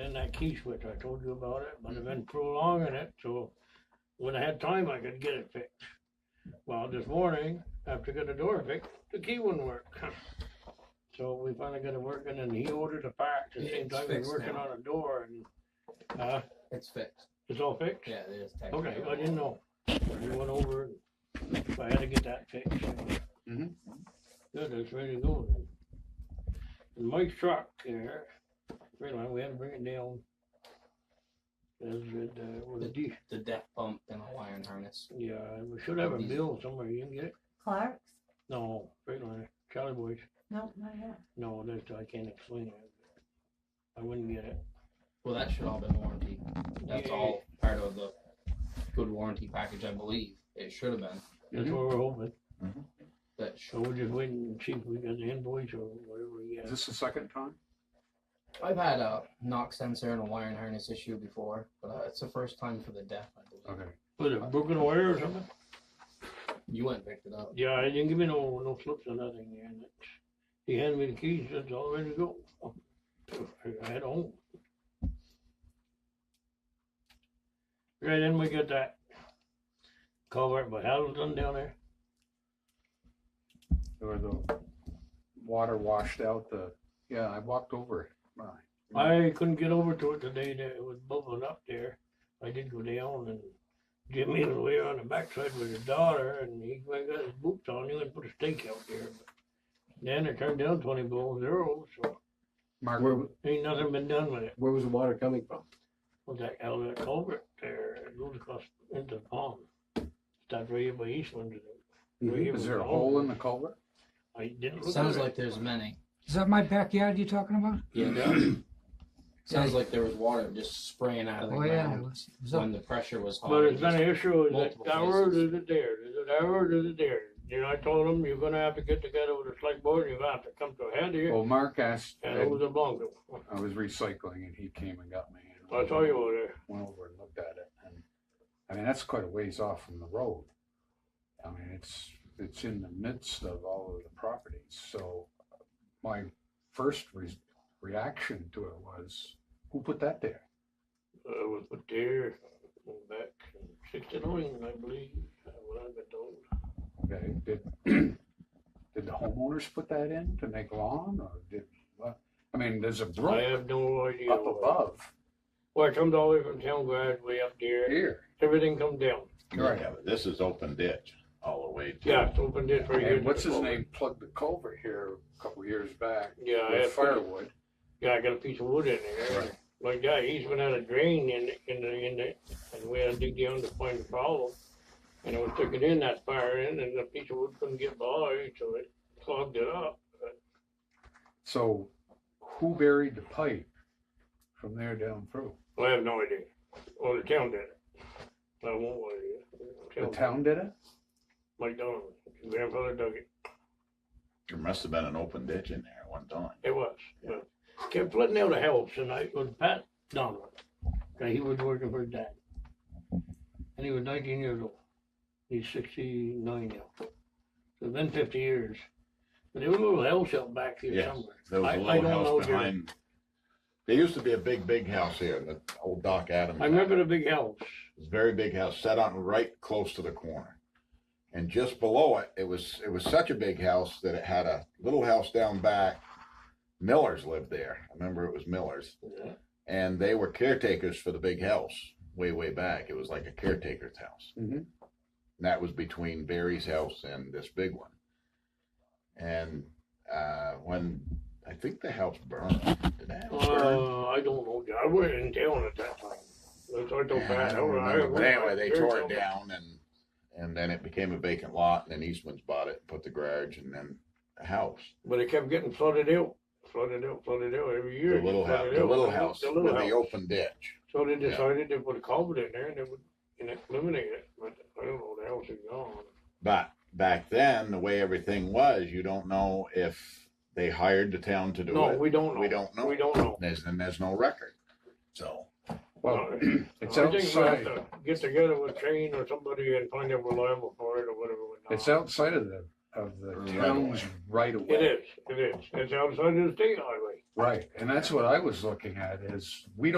in that key switch, I told you about it, but I've been prolonging it, so when I had time, I could get it fixed. Well, this morning, after getting the door fixed, the key wouldn't work. So we finally got it working and he ordered a part, at the same It's time we we're fixed working now. on a door and, uh, It's fixed. it's all fixed? Yeah, it is technically. Okay, I didn't know. We went over, it. I had to get that fixed. Mm-hmm. Mhm. Good, it's ready to go then. And Mike's truck there, wait a minute, we had to bring it down. Is it, uh, was it, de- The deck pump and a wiring harness. yeah, we should have a bill somewhere, you can get it? Clark's? No, wait a minute, Charlie Boys, No, not yet. no, that's, I can't explain it. I wouldn't get it. Well, that should all been warranty. That's Yeah. all part of the good warranty package, I believe. It should have been. That's Mm-hmm. what we're hoping, That so should. we're just waiting and see if we got the invoice or whatever, we Is got. this the second time? I've had a knock sensor and a wiring harness issue before, but uh, it's the first time for the deck. I believe. Okay. Was it broken wire or something? You went and picked it up. Yeah, he didn't give me no, no slips or nothing, yeah, and it's, he handed me the keys, it's all ready to go. I had home. Right, then we got that culvert by Hamilton down there, Or the water washed out the, yeah, I walked over it. Right. I couldn't get over to it today, that it was bubbling up there, I did go down and Jimmy was way on the backside with his daughter, and he went and got his boots on, he went and put a stake out there. Then it turned down twenty below zero, so Mark, Where, ain't nothing been done with it. where was the water coming from? Well, that outlet culvert there it goes across into the pond. Starts right by Eastland. Mhm. is there a hole in the culvert? I didn't It look sounds at like there's many. Is that my backyard you're talking about? Sounds like there was water just spraying out of the Oh, yeah, it ground was, it was up when the pressure was high. But it's It been an issue, is multiple it ours, places. is it theirs, is it ours, is it theirs? You know, I told them, you're gonna have to get together with the select board, you're gonna have to come to a head here, Well, Mark asked, and it was a blanco. I was recycling and he came and got me. and I saw you over there, Went over and looked at it and, I mean, that's quite a ways off from the road. I mean, it's, it's in the midst of all of the properties, so my first re- reaction to it was, who put that there? I uh, was put there back in sixty-nine, I believe, when I got told. Okay, did, did the homeowners put that in to make lawn or did, what? I mean, there's a I brook have no idea. up where- above Well, it comes all the way from town grass way up there, here. everything comes down. Right. Yeah, but this is open ditch all the way to. Yeah, it's open ditch right here. And what's to the his culvert. name plugged the culvert here a couple of years back Yeah, I with had, firewood. yeah, I got a piece of wood in there. Right. Like that, he's been out a drain in, the- in the, in the, and we had to dig down to find the problem. And I was sticking in that fire in and the piece of wood couldn't get by, so it clogged it up. So who buried the pipe from there down through? I have no idea. Well, the town did it. I won't lie to you. The town did it? Mike Donovan, his grandfather dug it. There must have been an open ditch in there at one time. It was, but kept flooding out of house and I was Pat Donovan. Okay, he was working for his dad. And he was nineteen years old. He's sixty-nine now. So it's been fifty years. But there was a little house out back here Yes, somewhere. There was I- a I little don't know, house Jerry. behind. There used to be a big, big house here, the old Doc Adams. I remember the big house. It was a very big house, set on right close to the corner. And just below it, it was, it was such a big house that it had a little house down back. Millers lived there. I remember it was Millers. Yeah. And they were caretakers for the big house way, way back. It was like a caretaker's house. Mhm. And that was between Barry's house and this big one. And uh, when I think the house burned, did that house burn? Uh, I don't know. I wasn't in town at that time. That's what I told Yeah, I Pat. don't I- I remember. But remember anyway, they very tore well. it down and, and then it became a vacant lot and then Eastman's bought it, put the garage and then a house. But it kept getting flooded out, flooded out, flooded out every The year. it little house, flooded the out. little house The with little the house. open ditch. So they Yeah. decided they put a culvert in there and they would, you know, eliminate it, but I don't know, the house is gone. But back then, the way everything was, you don't know if they hired the town to do No, it. we don't know. We don't know. We don't know. There's, and there's no record. So, Well, No, it's I think we'll have outside, to Get together with Shane or somebody and find out we're liable for it or whatever. we're not. it's outside of the, of the Right town's right away. It is, it is, it's outside of the state highway. Right, and that's what I was looking at, is we don't.